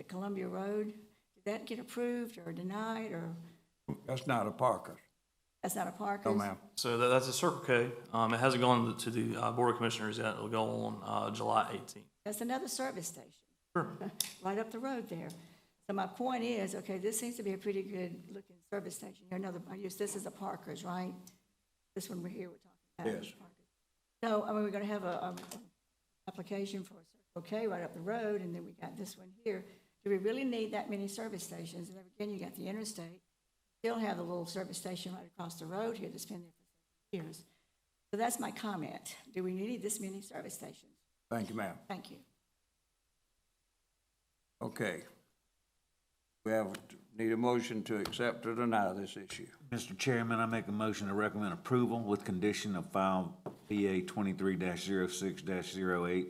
at Columbia Road. Did that get approved or denied, or That's not a Parker. that's not a park? No, is- ma'am. So that, that's a Circle K. Um, it hasn't gone to the uh, Board of Commissioners yet. It'll go on, uh, July eighteenth. That's another service station. Sure. Right up the road there. So my point is, okay, this seems to be a pretty good-looking service station. Here Another, I use- this is a Parker's, right? This one we're here, we're talking about. Yes. So, I mean, we're gonna have a, um, application for a Circle K right up the road, and then we got this one here. Do we really need that many service stations? And then again, you got the interstate. Still have the little service station right across the road here that's been there for years. So that's my comment. Do we need this many service stations? Thank you, ma'am. Thank you. Okay. We have, need a motion to accept or deny this issue. Mr. Chairman, I make a motion to recommend approval with condition of file PA twenty-three 6 8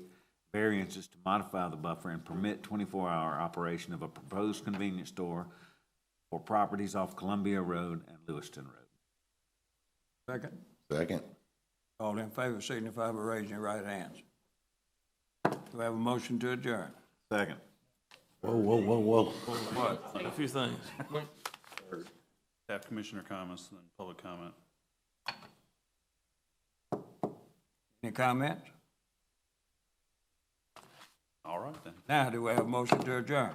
variances to modify the buffer and permit twenty-four hour operation of a proposed convenience store for properties off Columbia Road and Lewiston Road. Second. Second. All in favor signify by raising your right hands. Do we have a motion to adjourn? Second. Whoa, whoa, whoa, whoa. What? A few things. Staff commissioner comments, and then public comment. Any comments? All right, then. Now, do we have a motion to adjourn?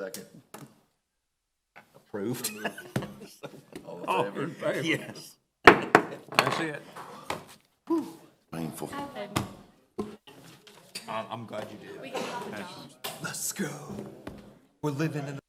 Second. Approved. All in favor? Yes. That's it. Painful. Let's go. We're living in